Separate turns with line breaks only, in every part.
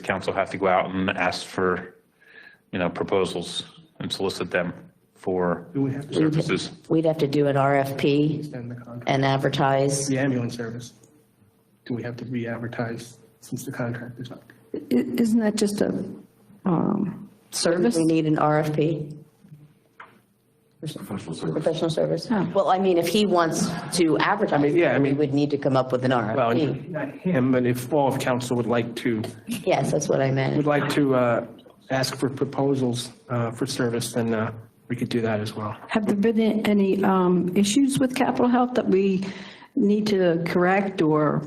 council have to go out and ask for, you know, proposals and solicit them for
Do we have to
services.
We'd have to do an RFP
extend the contract?
and advertise.
The ambulance service, do we have to re-advertise since the contract is up?
I- Isn't that just a um, service?
We need an RFP. Professional service. Well, I mean, if he wants to advertise,
yeah, I
we
mean-
would need to come up with an
Well,
RFP.
not him, but if all of council would like to,
Yes, that's what I
would
meant.
like to uh, ask for proposals uh, for service, then uh, we could do that as well.
Have there been any um, issues with Capital Health that we need to correct or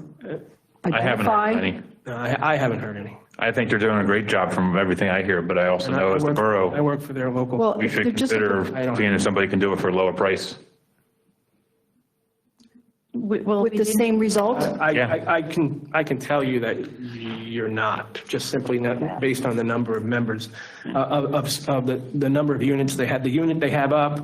I haven't heard
identify?
any.
No, Uh, I I haven't heard any.
I think they're doing a great job from everything I hear, but I also know as
I
the
work- I
borough,
work for their local,
Well,
we should
they're just-
consider
I don't-
seeing if somebody can do it for a lower price.
With the same result?
I-
Yeah.
I, I can, I can tell you that you're not, just simply not, based on the number of members, uh, of, of- of the, the number of units they had, the unit they have up,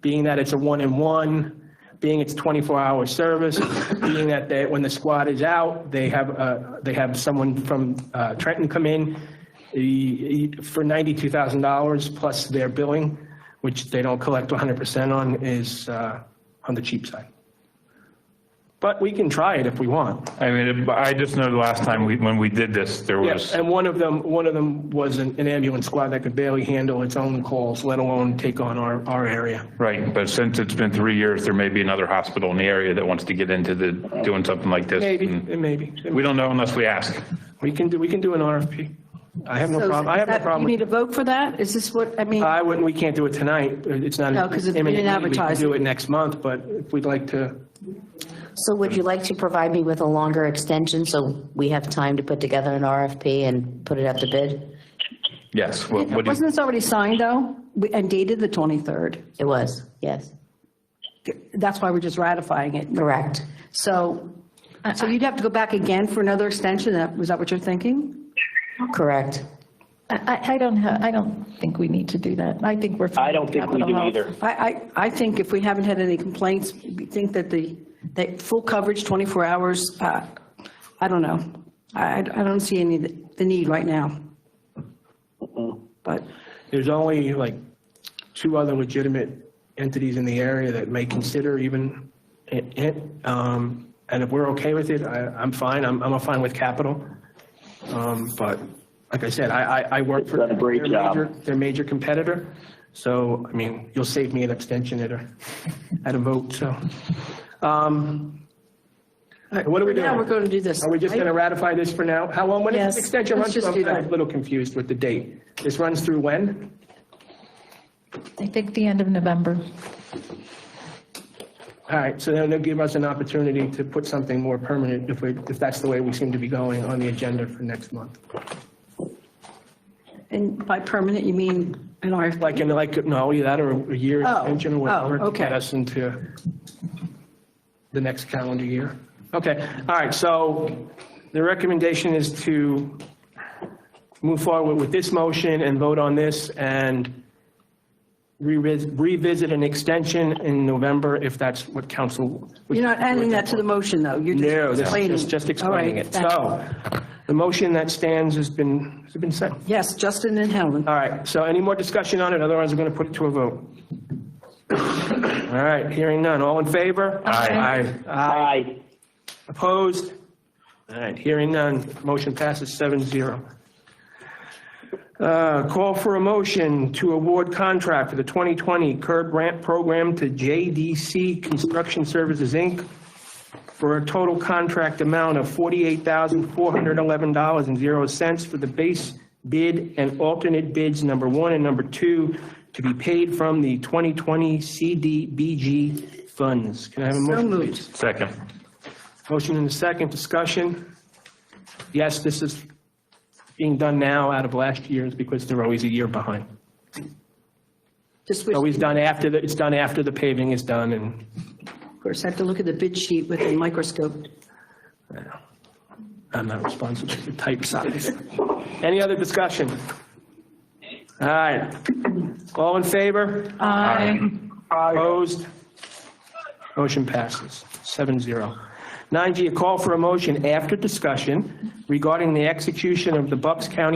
being that it's a one-in-one, being it's 24-hour service, being that they, when the squad is out, they have, uh, they have someone from uh, Trenton come in e- e- for $92,000 plus their billing, which they don't collect 100% on, is uh, on the cheap side. But we can try it if we want.
I mean, I just know the last time we, when we did this, there was,
Yes, and one of them, one of them was an an ambulance squad that could barely handle its own calls, let alone take on our, our area.
right, but since it's been three years, there may be another hospital in the area that wants to get into the, doing something like this.
Maybe,
And
maybe.
We don't know unless we ask.
We can do, we can do an RFP. I have no problem, I have no problem.
You
with-
need to vote for that? Is this what, I mean,
I wouldn't, we can't do it tonight. It's not.
No, 'cause it- we didn't
imminently.
advertise.
We can do it next month, but if we'd like to,
So would you like to provide me with a longer extension so we have time to put together an RFP and put it out to bid?
Yes, what, what do you?
wasn't this already signed, though, and dated the 23rd?
It was, yes,
That's why we're just ratifying it.
correct.
So, so you'd have to go back again for another extension? That Was that what you're thinking?
Correct.
I, I- I don't have, I don't think we need to do that. I think we're. fine
I don't
with
think we
Capitol
do
Health.
either.
I, I, I think if we haven't had any complaints, we think that the, that full coverage, 24 hours, uh, I don't know. I, I don't see any, the need right now. But
there's only like two other legitimate entities in the area that may consider even it- it. um, And if we're okay with it, I, I'm fine, I'm, I'm fine with capital. Um, But like I said, I, I, I work for.
You've done a great
their
job.
major- Their major competitor, so, I mean, you'll save me an abstention at a, at a vote, so. Um, all right, What are we doing?
now we're going to do this.
Are we just going to ratify this for now? How long, when is
Yes,
the extension run
let's
through?
just
I'm
do
kind of
that.
a little confused with the date. This runs through when?
I think the end of November.
All right, so then they'll give us an opportunity to put something more permanent if we, if that's the way we seem to be going on the agenda for next month.
And by permanent, you mean an RFP?
Like, in like, no, either that or a year
Oh,
extension or
oh,
whatever. to
okay.
Get us into the next calendar year. Okay, all right, so the recommendation is to move forward with this motion and vote on this and revis- revisit an extension in November if that's what council. would-
You're not adding that to the motion, though? You're
No,
just
this
explaining.
is just- just
All right,
explaining it.
thank you.
So, the motion that stands has been, has been set.
Yes, Justin and Helen.
All right, so any more discussion on it? Otherwise, we're going to put it to a vote. All right, hearing none. All in favor?
Aye.
Aye.
Aye.
Opposed? All right, hearing none. Motion passes seven zero. Uh, Call for a motion to award contract for the 2020 curb ramp program to JDC Construction Services, Inc. for a total contract amount of $48,411.00 for the base bid and alternate bids number one and number two to be paid from the 2020 CDBG funds. Can I have a motion,
moved.
please?
Second.
Motion and a second, discussion. Yes, this is being done now out of last year's because they're always a year behind.
Just
It's
wish,
Always done after, the it's done after the paving is done and,
of course, I have to look at the bid sheet with a microscope.
I'm not responsible for type size. Any other discussion? All right. All in favor? Opposed? Motion passes, seven zero. 9G, a call for a motion after discussion regarding the execution of the Bucks County